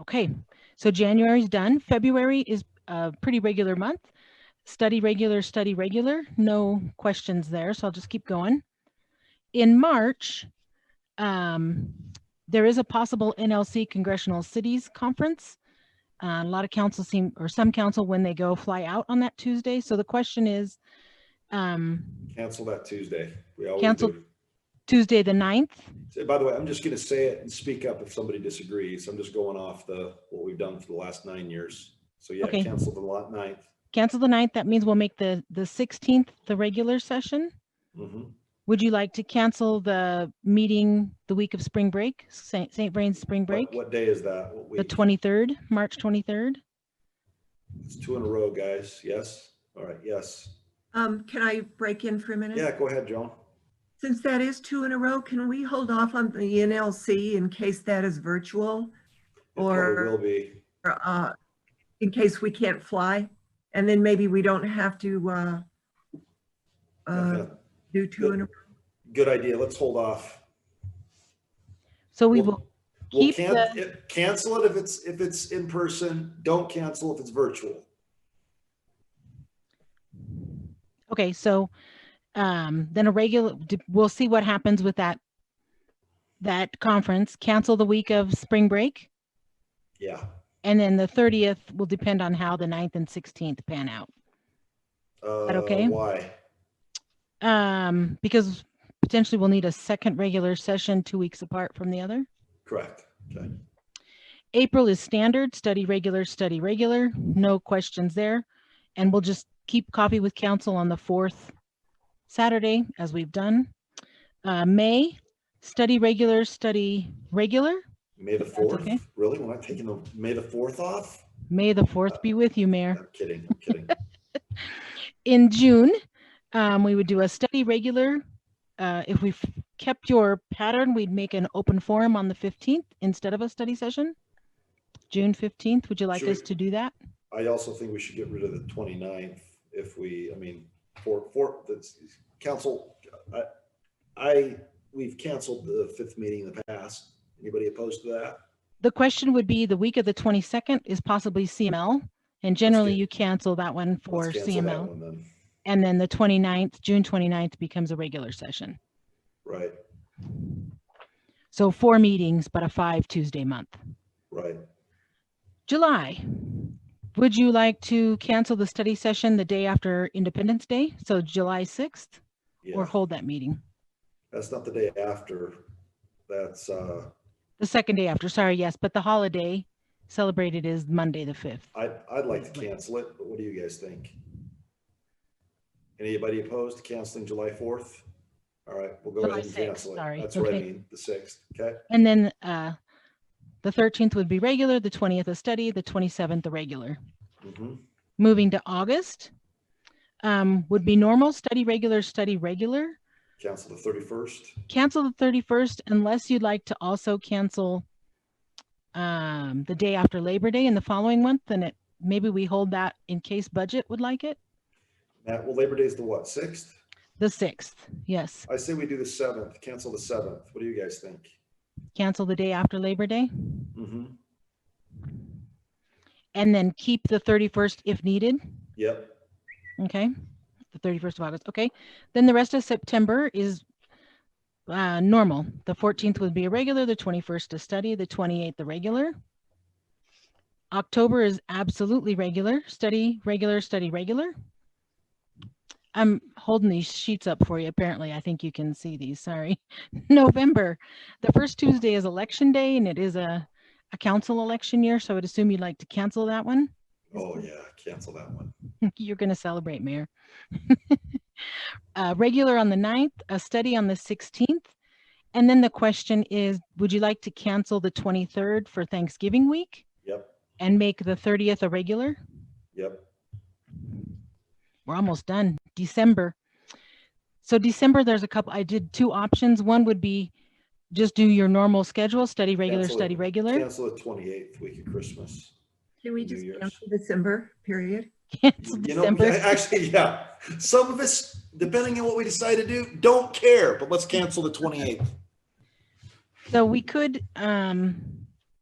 Okay, so January's done. February is a pretty regular month. Study regular, study regular, no questions there, so I'll just keep going. In March, um, there is a possible NLC Congressional Cities Conference. Uh, a lot of council seem, or some council, when they go, fly out on that Tuesday. So the question is, um, Cancel that Tuesday. We always Cancel. do. Tuesday, the 9th, So, By the way, I'm just going to say it and speak up if somebody disagrees. I'm just going off the, what we've done for the last nine years. So yeah, Okay. cancel the lot ninth. cancel the 9th. That means we'll make the, the 16th, the regular session. Mhm. Would you like to cancel the meeting the week of spring break, St. St. Vrain's spring break? What, what day is that? What The week? 23rd, March 23rd? It's two in a row, guys. Yes? All right, yes. Um, can I break in for a minute? Yeah, go ahead, Joan. Since that is two in a row, can we hold off on the NLC in case that is virtual? It probably Or- Will be. Or, uh, in case we can't fly? And then maybe we don't have to, uh, uh, do two in a, Good idea. Let's hold off. So we We'll- will, we'll keep can- the- it- Cancel it if it's, if it's in person. Don't cancel if it's virtual. okay, so um, then a regular, d- we'll see what happens with that, that conference. Cancel the week of spring break. Yeah, And then the 30th will depend on how the 9th and 16th pan out. Uh, okay? Why? Um, because potentially we'll need a second regular session two weeks apart from the other. Correct. Okay. April is standard, study regular, study regular, no questions there. And we'll just keep coffee with council on the fourth Saturday as we've done. Uh, May, study regular, study regular. May the That's fourth? okay. Really? We're not taking the, May the fourth off? May the fourth be with you, Mayor. I'm kidding, I'm kidding. In June, um, we would do a study regular. Uh, if we've kept your pattern, we'd make an open forum on the fifteenth instead of a study session. June fifteenth, would you like Should we- us to do that? I also think we should get rid of the 29th if we, I mean, for, for, that's, council, I, I, we've canceled the fifth meeting in the past. Anybody opposed to that? The question would be the week of the 22nd is possibly CML. And generally can- you cancel that one for Let's cancel that CML. one then. And then the 29th, June 29th becomes a regular session. Right, So four meetings, but a five Tuesday month. right. July. Would you like to cancel the study session the day after Independence Day? So July 6th or Yeah, hold that meeting? that's not the day after. That's, uh, The second day after, sorry, yes, but the holiday celebrated is Monday, the 5th. I, I'd like to cancel it, but what do you guys think? Anybody opposed to canceling July 4th? All right, we'll go July ahead and 6th, cancel sorry, it. That's what I okay. mean, the 6th, okay? And then uh, the 13th would be regular, the 20th a study, the 27th a regular. Mhm. Moving to August um, would be normal, study regular, study regular. Cancel the 31st? Cancel the 31st unless you'd like to also cancel um, the day after Labor Day and the following month, then it, maybe we hold that in case budget would like it. Matt, well, Labor Day's the what, sixth? The 6th, yes. I say we do the seventh, cancel the seventh. What do you guys think? Cancel the day after Labor Day Mm-hmm. and then keep the 31st if needed. Yep, Okay, the 31st of August, okay. Then the rest of September is uh, normal. The 14th would be a regular, the 21st a study, the 28th a regular. October is absolutely regular, study, regular, study, regular. I'm holding these sheets up for you, apparently. I think you can see these, sorry. November, the first Tuesday is election day and it is a, a council election year, so I would assume you'd like to cancel that one. oh yeah, cancel that one. You're going to celebrate, Mayor. uh, regular on the 9th, a study on the 16th. And then the question is Would you like to cancel the 23rd for Thanksgiving week Yep, and make the 30th a regular? yep, We're almost done. December. So, December, there's a couple. I did two options. One would be just do your normal schedule study regular, Cancel it. study regular. cancel the twenty-eighth week of Christmas. can we New just Year's. cancel December, period? Cancel You know, December. actually, yeah, some of us, depending on what we decide to do, don't care, but let's cancel the twenty-eighth. So we could, um,